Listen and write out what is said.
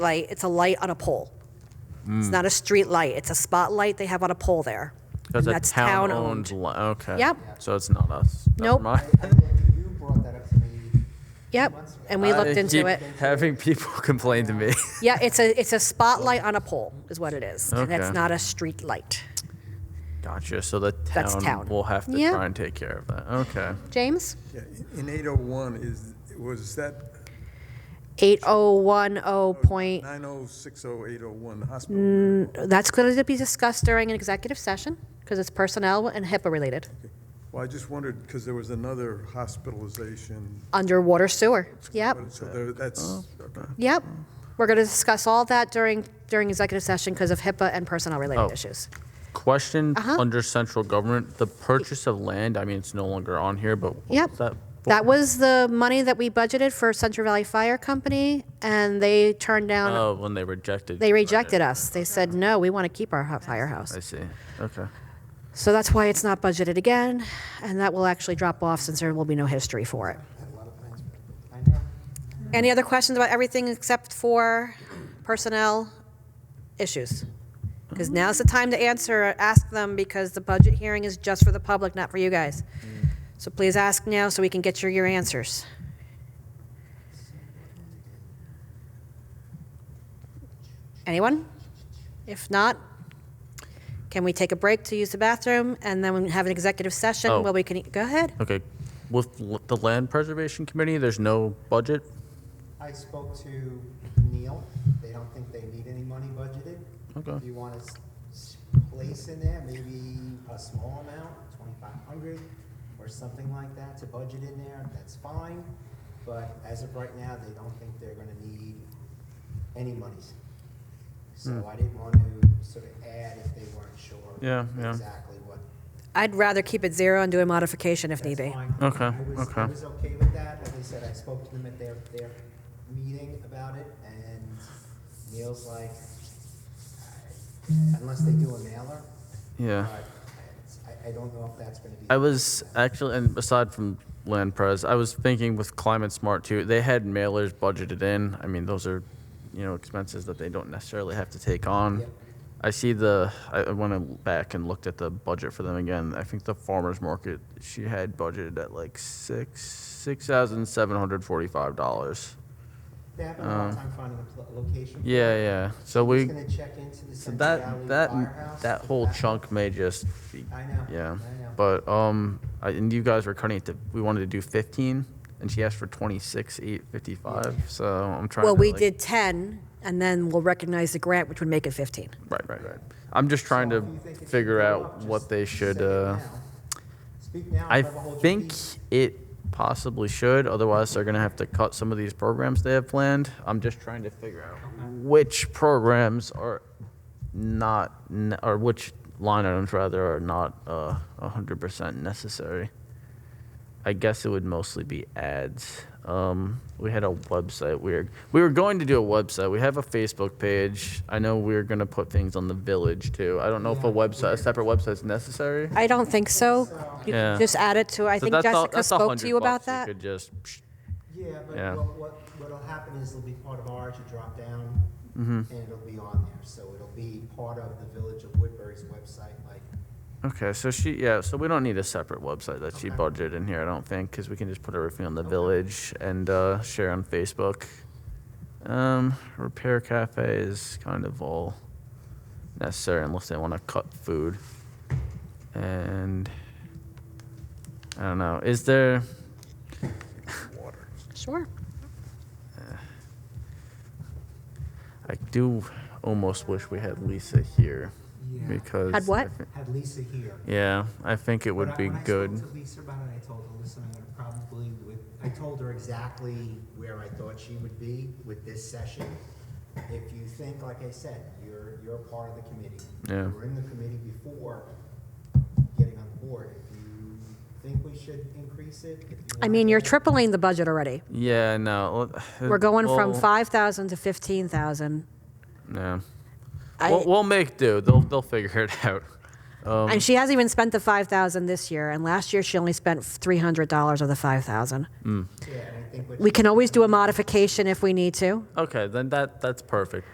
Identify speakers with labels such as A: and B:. A: light, it's a light on a pole. It's
B: Mm.
A: not a street light, it's a spotlight they have on a pole there.
B: That's
A: And
B: a town-owned. li- okay.
A: Yep.
B: So it's not us. Never
A: Nope.
B: mind.
C: You brought that up to me.
A: Yep, and we
B: I
A: looked into
B: keep
A: it.
B: Having people complain to me.
A: Yeah, it's a, it's a spotlight on a pole, is what it is. And it's
B: Okay.
A: not a street light.
B: gotcha. So the town,
A: That's town.
B: will have to
A: Yeah.
B: try and take care of that. Okay.
A: James?
D: Yeah, In 801 is, was that
A: 8010 point, Mm.
D: 9060801 hospital?
A: that's going to be discussed during an executive session because it's personnel and HIPAA related.
D: Well, I just wondered, because there was another hospitalization.
A: Underwater sewer. Yep,
D: So there- that's, okay.
A: yep. We're going to discuss all that during, during executive session because of HIPAA and personnel related
B: Oh.
A: issues.
B: Question
A: Uh-huh.
B: under central government: the purchase of land. I mean, it's no longer on here, but what
A: Yep.
B: was that? for?
A: That was the money that we budgeted for Central Valley Fire Company, and they turned down,
B: Oh, when they rejected.
A: they rejected us. They said, no, we want to keep our hot firehouse.
B: I see. Okay.
A: So that's why it's not budgeted again, and that will actually drop off since there will be no history for it.
C: I know.
A: Any other questions about everything except for personnel issues? Because now's the time to answer, ask them, because the budget hearing is just for the public, not for you guys. So please ask now so we can get your, your answers. Anyone? If not, can we take a break to use the bathroom and then we have an executive
B: Oh.
A: session where we can, e-, go ahead.
B: Okay. With l- the land preservation committee, there's no budget.
C: I spoke to Neil, they don't think they need any money budgeted.
B: Okay.
C: If you want to place in there, maybe a small amount, twenty-five hundred, or something like that to budget in there, that's fine. But as of right now, they don't think they're gonna need any monies. So I didn't want to sort of add if they weren't sure.
B: Hmm. Yeah, yeah.
C: Exactly what.
A: I'd rather keep it zero and do a modification if
C: That's
A: need be.
C: fine.
B: Okay,
C: I was- I
B: okay.
C: was okay with that, like I said, I spoke to them at their, their meeting about it, and Neil's like, unless they do a mailer.
B: Yeah.
C: but I, I don't know if that's gonna be.
B: I was actually, and aside from land pres, I was thinking with climate smart too. They had mailers budgeted in. I mean, those are, you know, expenses that they don't necessarily have to take on.
C: Yep.
B: I see the. I I went back and looked at the budget for them again. I think the farmers market she had budgeted at like six six thousand seven hundred forty five dollars.
C: They have a hard time finding a pl- location.
B: Uh, Yeah, yeah. So we.
C: Just gonna check into the
B: So
C: Central Valley
B: that that
C: Firehouse.
B: that whole
C: That's-
B: chunk may just be.
C: I know,
B: Yeah,
C: I know.
B: but um, I, and you guys were cutting it to. We wanted to do fifteen, and she asked for twenty six eight fifty five. So I'm trying.
A: Well,
B: to,
A: we
B: like-
A: did 10, and then we'll recognize the grant, which would make it 15.
B: Right, right, right. I'm just trying
C: So
B: to
C: if you think it should
B: figure
C: go
B: out
C: up, just
B: what they should.
C: say it
B: Uh,
C: now. Speak now.
B: I
C: forever hold your
B: think
C: peace.
B: it possibly should. Otherwise, they're gonna have to cut some of these programs they have planned. I'm just trying to figure out which programs are not, n- or which line items rather are not uh, 100% necessary. I guess it would mostly be ads. Um, we had a website. We were, we were going to do a website. We have a Facebook page. I know we are going to put things on the village too. I don't know if a website, a separate website is necessary.
A: I don't think so. You
B: Yeah.
A: Just add it to, I
B: So
A: think
B: that's all-
A: Jessica
B: that's a
A: spoke
B: hundred
A: to you about
B: bucks.
A: that.
B: could just, psh,
C: Yeah,
B: Yeah.
C: but what, what, what'll happen is it'll be part of ours, you drop down,
B: Mm-hmm.
C: and it'll be on there, so it'll be part of the Village of Woodbury's website, like,
B: okay, so she, yeah, so we don't need a separate website that she budgeted in here, I don't think, because we can just put everything on the village and uh, share on Facebook. Um, repair cafe is kind of all necessary unless they want to cut food. And I don't know, is there?
A: Sure.
B: I do almost wish we had Lisa here
C: Yeah.
B: because
A: Had what?
B: I thi-
C: had Lisa here.
B: yeah, I think it would
C: When I-
B: be
C: when I spoke
B: good.
C: to Lisa about it, I told her, listen, I'm gonna probably, with- I told her exactly where I thought she would be with this session. If you think, like I said, you're, you're a part of the committee.
B: Yeah.
C: You were in the committee before getting on the board. If you think we should increase it, if you
A: I
C: want
A: mean, you're
C: to-
A: tripling the budget already.
B: Yeah, no. let-
A: We're going from
B: we'll-
A: 5,000 to 15,000.
B: Yeah.
A: I-
B: We'll, we'll make do. They'll they'll figure it out. Um,
A: And she hasn't even spent the five thousand this year, and last year she only spent three hundred dollars of the five thousand.
C: Yeah, and I think what
A: We can always do a modification if we need to.
E: Okay, then that, that's perfect.